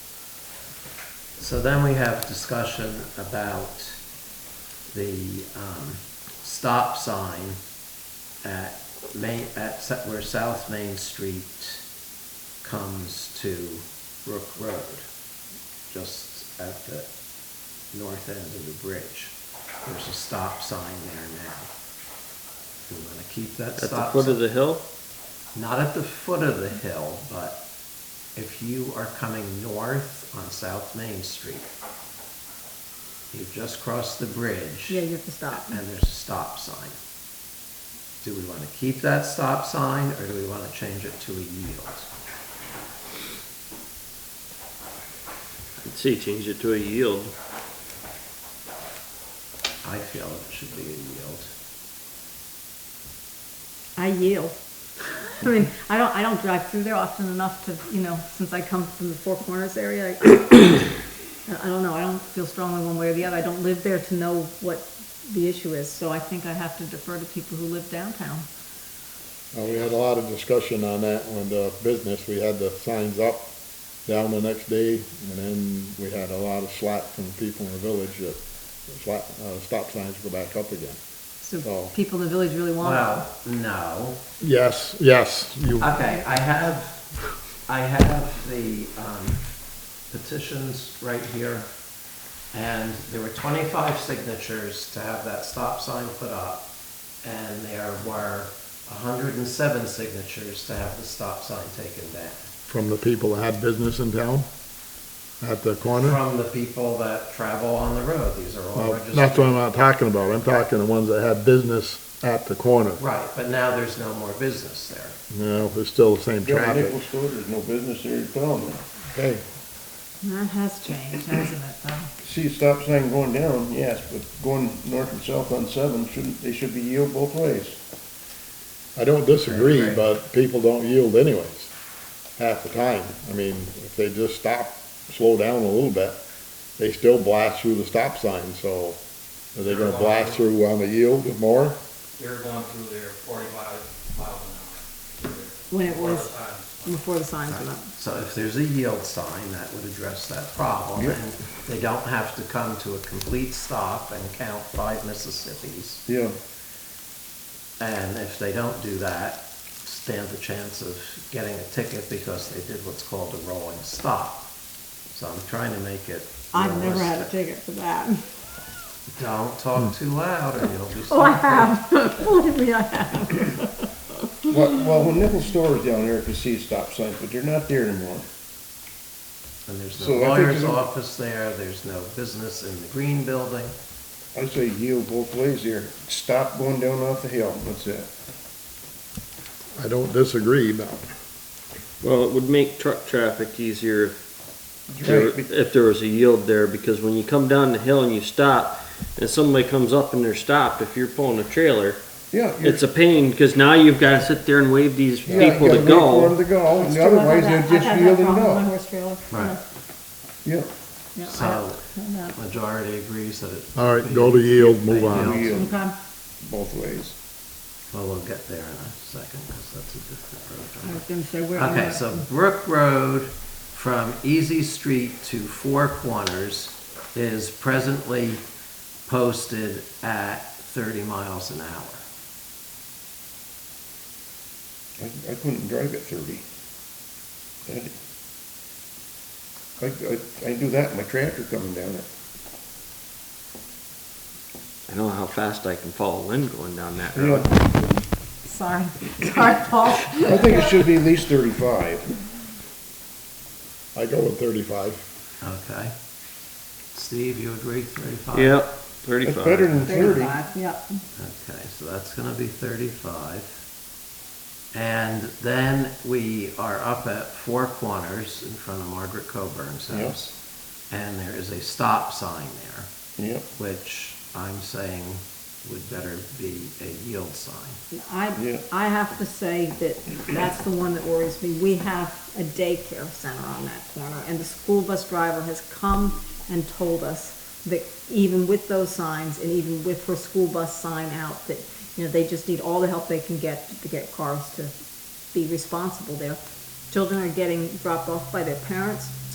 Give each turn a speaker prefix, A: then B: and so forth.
A: So then we have discussion about the, um, stop sign at Main, at, Sa- where South Main Street comes to Brook Road, just at the north end of the bridge. There's a stop sign there now. We wanna keep that
B: At the
A: stop sign
B: foot of the hill?
A: not at the foot of the hill, but if you are coming north on South Main Street, you've just crossed the bridge.
C: Yeah, you have to stop.
A: And there's a stop sign. Do we want to keep that stop sign or do we want to change it to a yield?
B: I'd say change it to a yield.
A: I feel it should be a yield.
C: I yield. I mean, I don't, I don't drive through there often enough to, you know, since I come from the Four Corners area. I I don't know, I don't feel strongly one way or the other. I don't live there to know what the issue is, so I think I have to defer to people who live downtown.
D: Uh, we had a lot of discussion on that when the business, we had the signs up down the next day, and then we had a lot of slack from people in the village that the slack, uh, stop signs go back up again.
C: So
D: Oh.
C: people in the village really want it.
A: Well, no.
D: Yes, yes, you,
A: Okay, I have, I have the um, petitions right here. And there were 25 signatures to have that stop sign put up. And there were 107 signatures to have the stop sign taken down.
D: from the people that had business in town at the corner.
A: From the people that travel on the road, these are all
D: Well, that's what
A: registered.
D: I'm not talking about. I'm talking the ones that had business at the corner.
A: Right, but now there's no more business there.
D: No, it's still the same
E: Yeah,
D: traffic.
E: Nickel store, there's no business there at all now.
D: Hey,
C: That has changed, hasn't it, though?
E: See, a stop sign going down, yes, but going north and south on seven, shouldn't, they should be yield both ways.
D: I don't disagree,
A: Right.
D: but people don't yield anyways, half the time. I mean, if they just stop, slow down a little bit, they still blast through the stop sign, so are they gonna blast through on the yield more?
F: They're going through there forty-five miles an hour. through there.
C: When it
F: Four
C: was-
F: times.
C: Before the signs went up.
A: So if there's a yield sign, that would address that problem. And they don't have to come to a complete stop and count five Mississippis.
E: Yeah.
A: And if they don't do that, stand the chance of getting a ticket because they did what's called a rolling stop. So I'm trying to make it
C: I've never had a
A: realistic.
C: ticket for that.
A: Don't
E: Hmm.
A: talk too loud or you'll be.
C: Oh, I
A: stopped.
C: have. Believe me, I have.
E: Well, well, when Nickel store is down there, I could see stop signs, but they're not there anymore.
A: And there's no
E: So I think
A: lawyer's
E: you-
A: office there, there's no business in the green building.
E: I say yield both ways here. Stop going down off the hill, that's it.
D: I don't disagree, but
B: Well, it would make truck traffic easier if there,
E: Right, but-
B: if there was a yield there, because when you come down the hill and you stop, and somebody comes up and they're stopped, if you're pulling a trailer,
E: Yeah. you're-
B: it's a pain, because now you've gotta sit there and wave these
E: yeah, you
B: people
E: gotta
B: to
E: wait for them
B: go.
E: to go,
C: It's
E: and
C: true, I've had
E: otherwise
C: that-
E: they're
C: I've had
E: just
C: that
E: yielding
C: problem on
E: up.
C: horse trailer.
A: Right.
E: Yeah,
C: Yeah, I-
A: So-
C: no.
A: Majority agrees that it.
E: Uh,
D: All right, go to yield, move on.
E: Yeah.
C: Okay.
E: both ways.
A: Well, we'll get there in a second because that's a different
C: I
A: program.
C: was gonna say, where are
A: Okay, so Brook Road from Easy Street to Four Corners is presently posted at thirty miles an hour.
E: I, I couldn't drive at thirty. That- I, I, I do that, my tractor coming down it.
B: I know how fast I can follow Lynn going down that
E: You know,
B: road.
C: Sorry, sorry, Paul.
E: I think it should be at least thirty-five.
D: I go with thirty-five.
A: Okay. Steve, you agree thirty-five?
B: Yep,
E: That's better
B: thirty-five.
E: than thirty.
C: Thirty-five, yep.
A: Okay, so that's gonna be thirty-five. And then we are up at Four Corners in front of Margaret Coburn's
E: Yep.
A: house. And there is a stop sign there.
E: Yep,
A: which I'm saying would better be a yield sign.
C: I,
E: Yeah.
C: I have to say that that's the one that worries me. We have a daycare center on that corner, and the school bus driver has come and told us that even with those signs, and even with her school bus sign out, that, you know, they just need all the help they can get to get cars to be responsible there. Children are getting dropped off by their parents,